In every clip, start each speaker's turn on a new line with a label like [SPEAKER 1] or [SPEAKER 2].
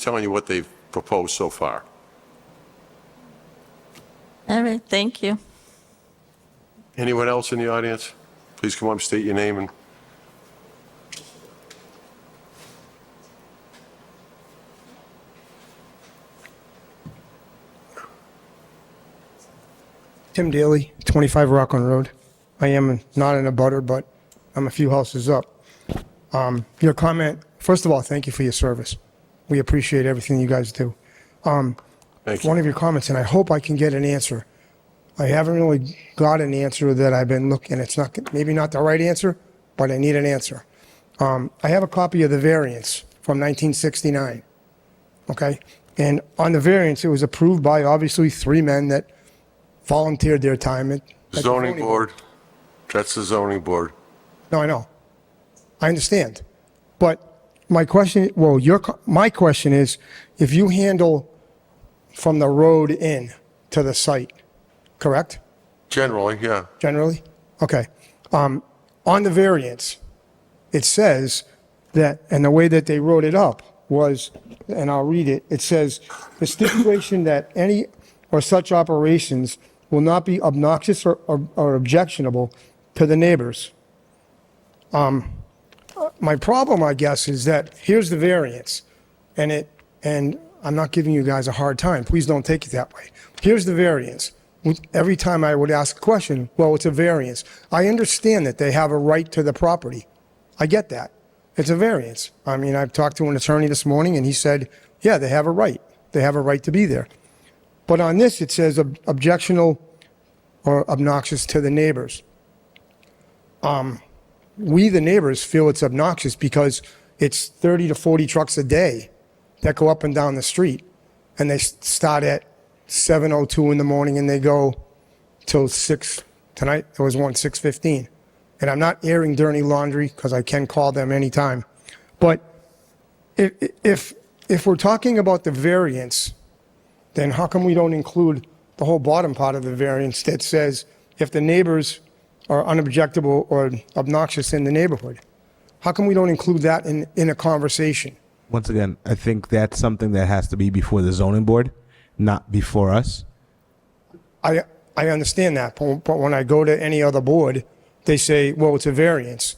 [SPEAKER 1] telling you what they've proposed so far.
[SPEAKER 2] All right, thank you.
[SPEAKER 1] Anyone else in the audience? Please come up, state your name and...
[SPEAKER 3] Tim Daly, 25 Rockland Road. I am not in a butter, but I'm a few houses up. Um, Your comment, first of all, thank you for your service. We appreciate everything you guys do. Um,
[SPEAKER 1] Thank
[SPEAKER 3] One
[SPEAKER 1] you.
[SPEAKER 3] of your comments, and I hope I can get an answer. I haven't really got an answer that I've been looking, it's not, maybe not the right answer, but I need an answer. Um, I have a copy of the variance from 1969 okay? And on the variance, it was approved by obviously three men that volunteered their time at. at the
[SPEAKER 1] Zoning board, that's the zoning board.
[SPEAKER 3] No, I know. I understand. But my question, well, your, co- my question is, if you handle from the road in to the site, correct?
[SPEAKER 1] Generally, yeah.
[SPEAKER 3] Generally? Okay. Um, on the variance, it says that, and the way that they wrote it up was, and I'll read it, it says, "The stipulation that any or such operations will not be obnoxious or, or- or objectionable to the neighbors." Um, my problem, I guess, is that here's the variance, and it, and I'm not giving you guys a hard time, please don't take it that way. Here's the variance. With- Every time I would ask a question, well, it's a variance. I understand that they have a right to the property. I get that. It's a variance. I mean, I've talked to an attorney this morning and he said, yeah, they have a right. They have a right to be there. But on this, it says ob- objectional or obnoxious to the neighbors. Um, we, the neighbors, feel it's obnoxious because it's 30 to 40 trucks a day that go up and down the street. And they s- start at 7.02 in the morning and they go till six tonight. There was one six fifteen, and I'm not airing dirty laundry because I can call them anytime. But if if if we're talking about the variance, then how come we don't include the whole bottom part of the variance that says if the neighbors are unobjectable or obnoxious in the neighborhood? How come we don't include that in in a conversation?
[SPEAKER 4] Once again, I think that's something that has to be before the zoning board, not before us.
[SPEAKER 3] I, I understand that, but but when I go to any other board, they say, well, it's a variance.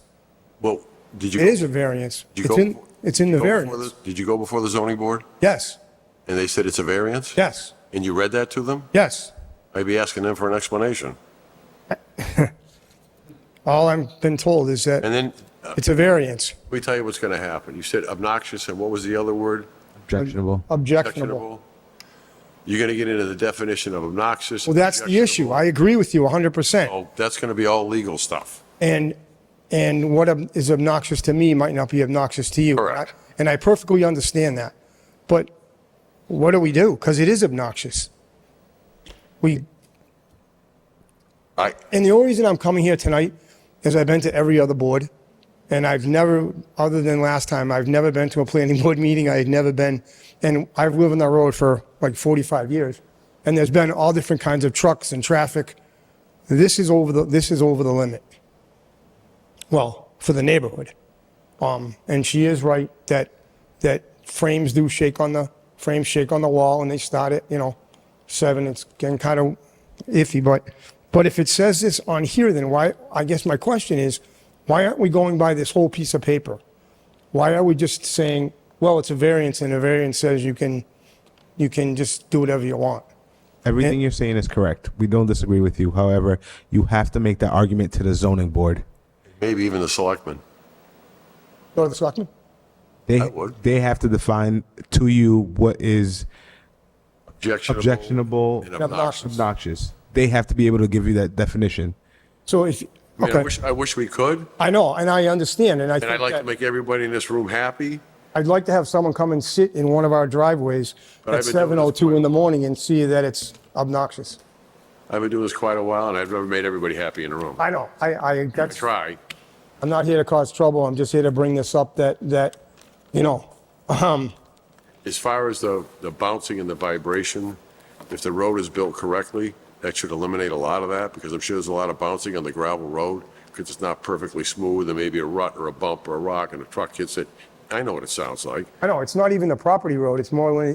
[SPEAKER 1] Well, did you...
[SPEAKER 3] It is a variance.
[SPEAKER 1] did you
[SPEAKER 3] It's
[SPEAKER 1] go-
[SPEAKER 3] in, it's in the
[SPEAKER 1] go before
[SPEAKER 3] variance.
[SPEAKER 1] the- Did you go before the zoning board
[SPEAKER 3] Yes,
[SPEAKER 1] and they said it's a variance?
[SPEAKER 3] yes,
[SPEAKER 1] And you read that to them?
[SPEAKER 3] yes.
[SPEAKER 1] I'd be asking them for an explanation.
[SPEAKER 3] All I've been told is that
[SPEAKER 1] And then, uh,
[SPEAKER 3] it's a variance,
[SPEAKER 1] let me tell you what's going to happen. You said obnoxious, and what was the other word?
[SPEAKER 4] Objectionable.
[SPEAKER 3] objectionable.
[SPEAKER 1] Objectionable. You're going to get into the definition of obnoxious.
[SPEAKER 3] Well, that's the issue. I agree with you 100%.
[SPEAKER 1] Oh, that's going to be all legal stuff.
[SPEAKER 3] And, and what ob- is obnoxious to me might not be obnoxious to you.
[SPEAKER 1] Correct.
[SPEAKER 3] And I perfectly understand that. But what do we do? Because it is obnoxious. We,
[SPEAKER 1] I,
[SPEAKER 3] And the only reason I'm coming here tonight is I've been to every other board, and I've never, other than last time, I've never been to a planning board meeting. I had never been, and I've lived on that road for like 45 years, and there's been all different kinds of trucks and traffic. This is over the, this is over the limit. Well, for the neighborhood. Um, and she is right that, that frames do shake on the, frames shake on the wall and they start at, you know, seven, it's getting kind of iffy, but, but if it says this on here, then why, I guess my question is, why aren't we going by this whole piece of paper? Why are we just saying, well, it's a variance and a variance says you can, you can just do whatever you want?
[SPEAKER 4] Everything you're saying is correct. We don't disagree with you. However, you have to make that argument to the zoning board.
[SPEAKER 1] maybe even the selectmen.
[SPEAKER 3] Go to the selectmen?
[SPEAKER 4] They,
[SPEAKER 1] I would.
[SPEAKER 4] they have to define to you what is
[SPEAKER 1] Objectionable.
[SPEAKER 4] objectionable,
[SPEAKER 1] And obnoxious.
[SPEAKER 4] obnoxious. They have to be able to give you that definition.
[SPEAKER 3] So if,
[SPEAKER 1] I mean, I
[SPEAKER 3] okay,
[SPEAKER 1] wish, I wish we could,
[SPEAKER 3] I know, and I understand, and I
[SPEAKER 1] and I'd
[SPEAKER 3] think
[SPEAKER 1] like to
[SPEAKER 3] that,
[SPEAKER 1] make everybody in this room happy.
[SPEAKER 3] I'd like to have someone come and sit in one of our driveways
[SPEAKER 1] But
[SPEAKER 3] at
[SPEAKER 1] I've been doing this
[SPEAKER 3] 7:02
[SPEAKER 1] for-
[SPEAKER 3] in the morning and see that it's obnoxious.
[SPEAKER 1] I've been doing this quite a while, and I've never made everybody happy in the room. I
[SPEAKER 3] I know, I, I, that's,
[SPEAKER 1] try.
[SPEAKER 3] I'm not here to cause trouble, I'm just here to bring this up that, that, you know, um,
[SPEAKER 1] As far as the, the bouncing and the vibration, if the road is built correctly, that should eliminate a lot of that, because I'm sure there's a lot of bouncing on the gravel road, because it's not perfectly smooth, there may be a rut or a bump or a rock, and the truck hits it, I know what it sounds like.
[SPEAKER 3] I know, it's not even the property road, it's more like